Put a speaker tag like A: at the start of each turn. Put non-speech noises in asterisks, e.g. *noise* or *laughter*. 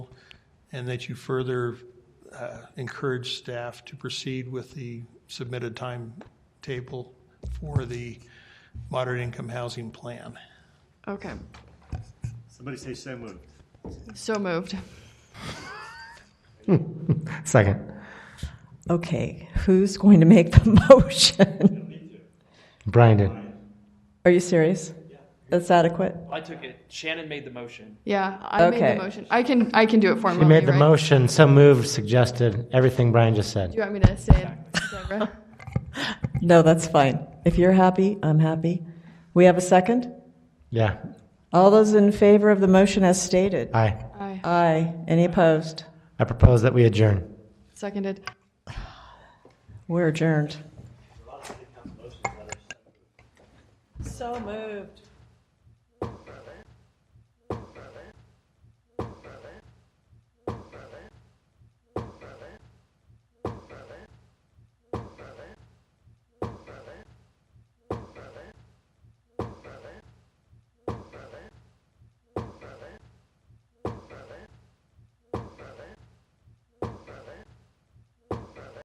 A: and that you further uh, encourage staff to proceed with the submitted timetable for the moderate income housing plan.
B: Okay,
C: Somebody say so moved.
B: so moved.
D: Second.
E: Okay, who's going to make the *laughs* motion?
D: Brian did.
E: Are you serious? That's adequate?
F: I took it. Shannon made the motion.
B: Yeah, I made
E: Okay.
B: the motion. I can I can do it formally.
D: He made the
B: right?
D: motion, so moved, suggested, everything Brian just
B: Do
D: said.
B: you want me to say it,
D: *laughs*
B: Deborah?
E: No, that's fine. If you're happy, I'm happy. We have a second?
D: Yeah,
E: All those in favor of the motion as stated?
D: aye.
B: Aye.
E: Aye. Any opposed?
D: I propose that we adjourn.
B: Seconded.
E: We're adjourned. So moved.